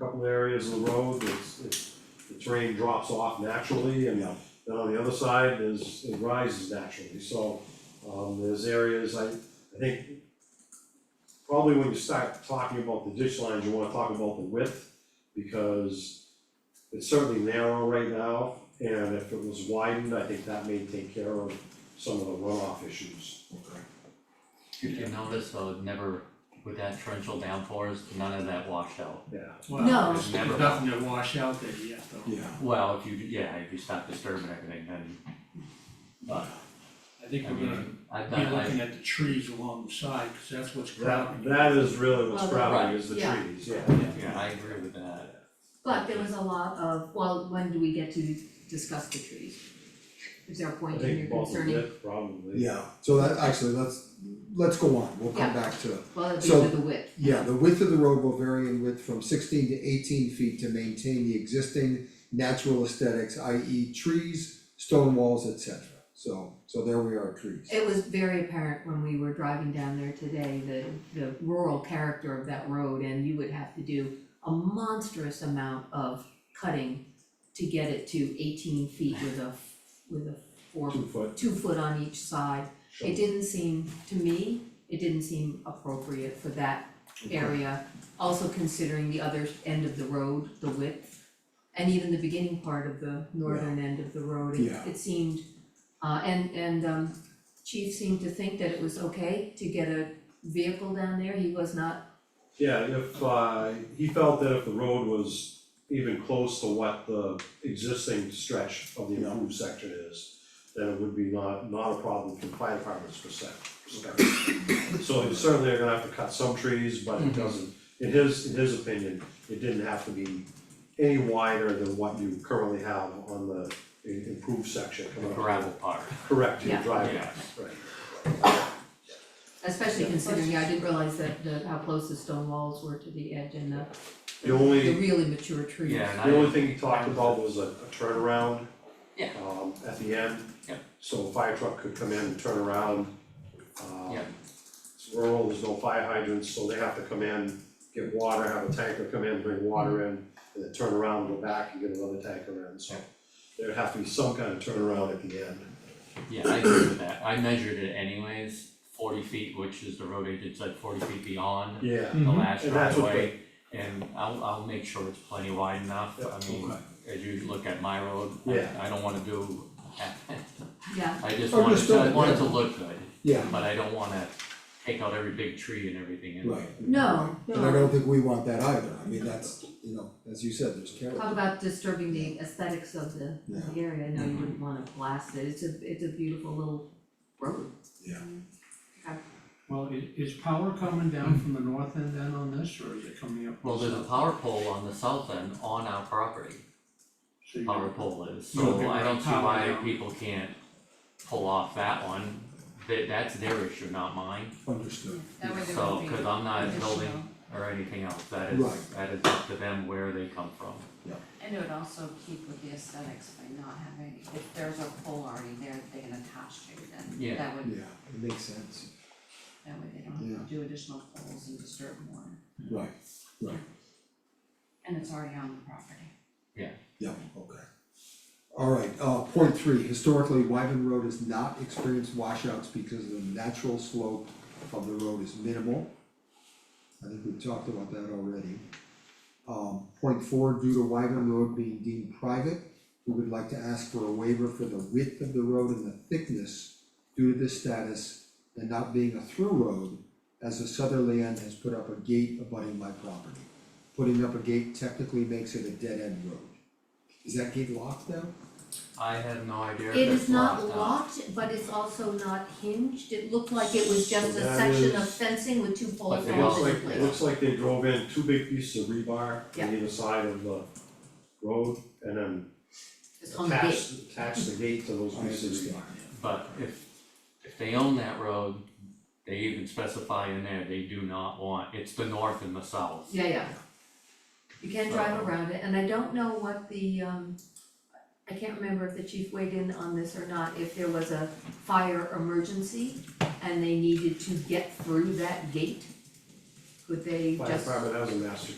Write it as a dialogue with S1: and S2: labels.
S1: mountain areas of the road, it's, it's, the terrain drops off naturally, and
S2: Yeah.
S1: then on the other side, there's, it rises naturally, so, um, there's areas, I, I think, probably when you start talking about the ditch lines, you wanna talk about the width, because it's certainly narrow right now, and if it was widened, I think that may take care of some of the runoff issues.
S2: Okay.
S3: If you notice though, it never, with that torrential downpours, none of that washed out.
S1: Yeah,
S4: No.
S5: Well, there's
S3: Never.
S5: nothing to wash out there yet though.
S2: Yeah,
S3: Well, if you, yeah, if you stop disturbing everything, then. But,
S5: I think
S3: I
S5: we're gonna
S3: mean, I've
S5: be
S3: done, I,
S5: looking at the trees along the side, cause that's what's
S1: that,
S5: crowding.
S1: that is really what's
S4: Well,
S1: crowding, is the
S4: yeah.
S1: trees, yeah.
S3: yeah, I agree with that.
S4: But there was a lot of, well, when do we get to discuss the trees? Is there a
S1: I
S4: point in
S1: think
S4: your
S1: both of
S4: concerning,
S1: it, probably.
S2: yeah, so that, actually, let's, let's go on, we'll come back to,
S4: well, it'd be
S2: So-
S4: with the width,
S2: yeah, the width of the road will vary in width from sixteen to eighteen feet to maintain the existing natural aesthetics, i.e. trees, stone walls, etc. So, so there we are, trees.
S4: It was very apparent when we were driving down there today, the, the rural character of that road, and you would have to do a monstrous amount of cutting to get it to eighteen feet with a, with a four,
S1: Two foot
S4: two foot on each side.
S1: shovel,
S4: It didn't seem, to me, it didn't seem appropriate for that area. Also considering the other end of the road, the width, and even the beginning part of the northern end of the road, it
S2: Yeah.
S4: it seemed. Uh and and um chief seemed to think that it was okay to get a vehicle down there, he was not,
S1: yeah, if, uh, he felt that if the road was even close to what the existing stretch of the
S2: Yeah.
S1: improved section is, then it would be not, not a problem from fire department's perspec- perspective. So you certainly are gonna have to cut some trees, but it
S3: Mhm.
S1: doesn't, in his, in his opinion, it didn't have to be any wider than what you currently have on the i- improved section
S3: The
S1: coming up.
S3: gravel part,
S1: Correct, your
S4: Yeah.
S1: driveway,
S3: Yeah.
S1: right.
S4: especially
S1: Yeah.
S4: considering, yeah, I didn't realize that the how close the stone walls were to the edge and the
S1: The only.
S4: the really mature trees.
S3: yeah, and I.
S1: The only thing he talked about was a a turnaround.
S3: Yeah.
S1: Um, at the end.
S3: Yeah.
S1: So a fire truck could come in and turn around. Um,
S3: Yeah.
S1: It's rural, there's no fire hydrants, so they have to come in, get water, have a tanker come in, bring water in, and then turn around, go back and get another tanker in, so.
S3: Yeah.
S1: There'd have to be some kind of turnaround at the end.
S3: Yeah, I agree with that, I measured it anyways, forty feet, which is the road agent said forty feet beyond
S1: Yeah.
S5: Mm-hmm.
S3: the last
S1: And that's what
S3: driveway. And I'll, I'll make sure it's plenty wide enough,
S1: Yeah,
S3: I mean,
S2: okay.
S3: as you look at my road,
S1: Yeah.
S3: I, I don't wanna do
S4: Yeah,
S3: I just
S2: Oh,
S3: wanted
S2: just
S3: to, I
S2: don't-
S3: wanted
S2: yeah.
S3: to look good,
S2: Yeah,
S3: but I don't wanna take out every big tree and everything in
S2: right.
S4: no, no.
S2: And I don't think we want that either, I mean, that's, you know, as you said, there's character.
S4: Talk about disturbing the aesthetics of the of the area, no, you
S3: Mm-hmm.
S4: wouldn't wanna blast it, it's a, it's a beautiful little road.
S5: Well, i- is power coming down from the north end then on this, or is it coming up?
S3: Well, there's a power pole on the south end on our property,
S5: So you-
S3: power pole is,
S5: You'll
S3: so
S5: figure
S3: I
S5: out
S3: don't see
S5: power
S3: why
S5: down.
S3: people can't pull off that one. That that's their issue, not mine,
S2: Understood.
S6: That way there
S3: so,
S6: won't be
S3: cause I'm not
S6: additional.
S3: building or anything else, that is,
S2: Right.
S3: that is up to them where they come from.
S6: And it would also keep with the aesthetics by not having, if there's a pole already there that they can attach to,
S3: Yeah.
S6: then that would,
S2: Yeah, it makes sense.
S6: that way they don't
S2: Yeah.
S6: have to do additional poles and disturb more,
S2: Right,
S6: and it's already on the property.
S2: yeah, okay. Alright, uh, point three, historically, Wyven Road has not experienced washouts because the natural slope of the road is minimal. I think we've talked about that already. Um, point four, due to Wyven Road being deemed private, we would like to ask for a waiver for the width of the road and the thickness due to this status and not being a through road, as the southerly end has put up a gate abutting my property. Putting up a gate technically makes it a dead-end road. Is that gate locked now?
S3: I have no idea if
S4: It
S3: it's
S4: is not
S3: locked up.
S4: locked, but it's also not hinged, it looked like it was just
S1: So
S4: a
S1: that
S4: section of
S1: is-
S4: fencing with two poles
S3: they
S1: It
S4: going
S1: looks
S3: all-
S1: like,
S4: into
S1: it
S4: place.
S1: looks like they drove in two big pieces of rebar
S4: Yeah.
S1: on either side of the road, and then
S4: It's on the gate.
S1: attach, attach the gate to those
S2: I
S1: pieces.
S2: understand.
S3: But if, if they own that road, they even specify in there, they do not want, it's the north and the south.
S4: Yeah, yeah. You can drive
S3: So-
S4: around it, and I don't know what the, um, I can't remember if the chief weighed in on this or not, if there was a fire emergency and they needed to get through that gate, could they
S1: Fire
S4: just?
S1: department has a master